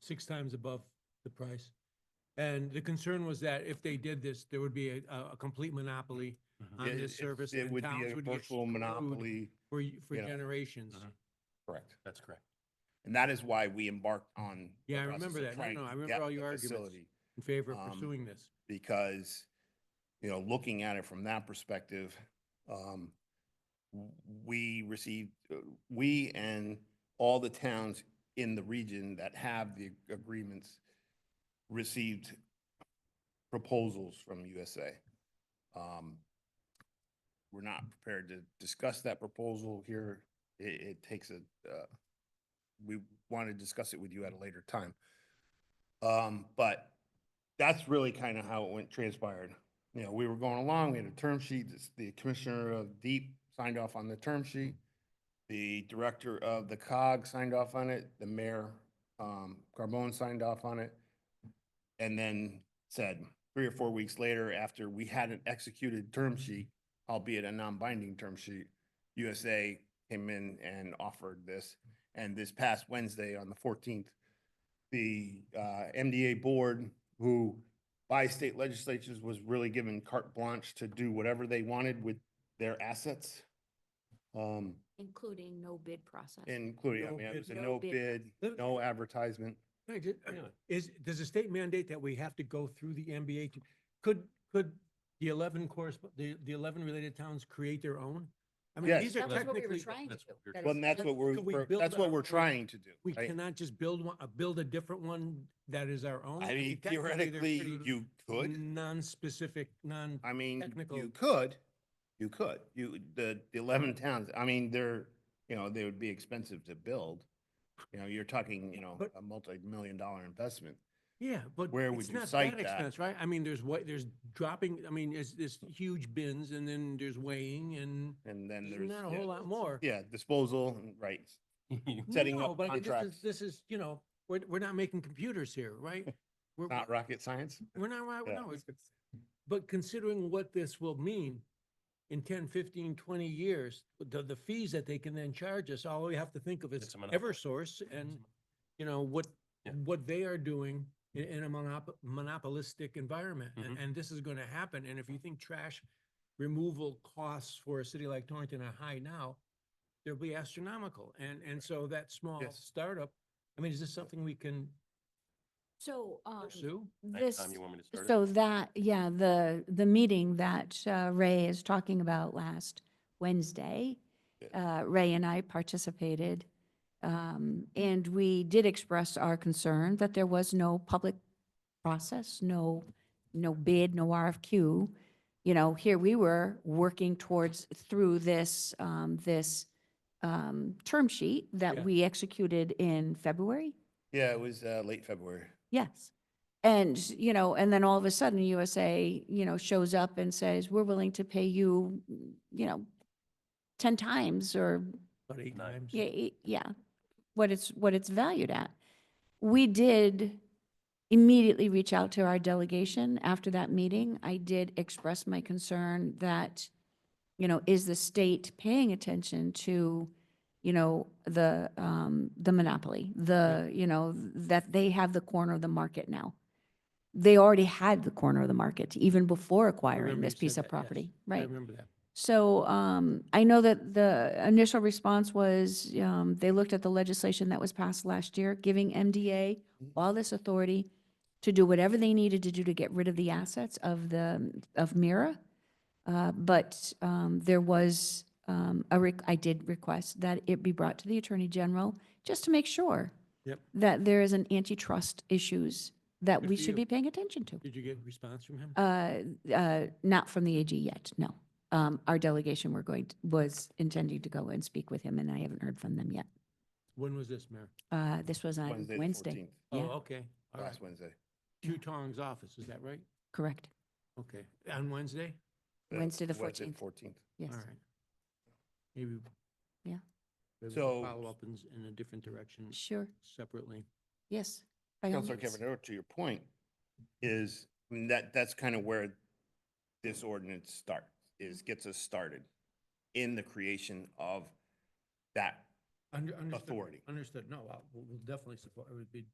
six times above the price. And the concern was that if they did this, there would be a, a a complete monopoly on It- this it- service. It and would be towns a get virtual screwed monopoly, For, y- for you know. Mm-hmm. generations. Mhm. correct. That's correct. And that is why we embarked on. the Yeah, I process remember of that. No, trying no, to I remember get all the your arguments. facility, In favor of Um, pursuing this. Because, you know, looking at it from that perspective, um, w- we received, uh, we and all the towns in the region that have the agreements received proposals from USA. Um, We're not prepared to discuss that proposal here. It, it takes a, uh, we want to discuss it with you at a later time. Um, but that's really kind of how it went transpired. You know, we were going along, we had a term sheet, this- the commissioner of deep signed off on the term sheet. The director of the cog signed off on it, the mayor, um, Carbone signed off on it. And then said, three or four weeks later, after we had an executed term sheet, albeit a non-binding term sheet, USA came in and offered this. And this past Wednesday on the fourteenth, the uh, MDA board, who by state legislatures was really given carte blanche to do whatever they wanted with their assets. Um, including no bid process. including, I No mean, it bid. was a No no bid. bid, no advertisement. Hey, ju- Is, does the state mandate that we have to go through the MBA? to- Could, could the eleven course, the, the eleven related towns create their own? I mean, Yes. these are That was what we were technically, trying to That's do. what we were That Well, is- and that's what we're, Could we we're- build that's what our we're own- trying to do. we right? cannot just build one, uh, build a different one that is our own. I mean, technically, they're theoretically, pretty you could. Non-specific, non, I mean, technical- you could, you could, you, the the eleven towns, I mean, they're, you know, they would be expensive to build. You know, you're talking, you know, But- a multi-million dollar investment. yeah, but Where would it's you not cite that that? expense, right? I mean, there's what, there's dropping, I mean, it's this huge bins and then there's weighing and And then There's there's. not a yeah, whole lot more. Yeah, disposal, and- right, setting No, up but I think this is- contracts. This is, you know, we're, we're not making computers here, right? We're, Not rocket science. we're not, right- Yeah. no, it's- but considering what this will mean in 10, 15, 20 years, the, the fees that they can then charge us, all we have to think of is It's a monopoly. Eversource and, you know, what, Yeah. what they are doing in, in a monop- monopolistic environment. Mm-hmm. And, and this is going to happen. And if you think trash removal costs for a city like Torrington are high now, they'll be astronomical. And, and so that small Yes. startup, I mean, is this something we can So, um, pursue? Next this, time you want me to start it? so that, yeah, the, the meeting that uh, Ray is talking about last Wednesday, uh, Ray and I participated. um, And we did express our concern that there was no public process, no, no bid, no RFQ. You know, here we were working towards, through this, um, this um, term sheet Yeah. that we executed in February. Yeah, it was, uh, late February. Yes. And, you know, and then all of a sudden USA, you know, shows up and says, we're willing to pay you, you know, 10 times or, About eight Nine. times? yeah, e- yeah, what it's, what it's valued at. We did immediately reach out to our delegation after that meeting. I did express my concern that, you know, is the state paying attention to, you know, the, um, the monopoly, the, you know, that they have the corner of the market now. They already had the corner of the market even before acquiring remember this you said piece that, of yes. property, I right? remember that. So um, I know that the initial response was, um, they looked at the legislation that was passed last year, giving MDA Mm-hmm. all this authority to do whatever they needed to do to get rid of the assets of the, of Mira. Uh, But um, there was, um, a rec- I did request that it be brought to the Attorney General, just to make sure Yep. that there is an antitrust issues that Good we for should you. be paying attention to. Did you get a response from him? Uh, uh, Not from the AG yet, no. Um, Our delegation were going, to- was intending to go and speak with him, and I haven't heard from them yet. When was this, Mayor? Uh, This was on Wednesday, the Wednesday. 14th, Oh, Yeah. okay. All right. Last Wednesday. Two Tong's office, is that right? Correct, Okay. On Wednesday? Uh, Wednesday the Wednesday, 14th. Fourteenth. yes. All right. Maybe. Yeah. maybe we'll So- Follow up in, s- in a different direction Sure, separately. yes. by all Counselor means. Kevin, to your point, is I mean, that, that's kind of where this ordinance starts, is gets us started in the creation of that Under, understood. Authority. Understood. No, I'll- we'll, we'll definitely support, it would be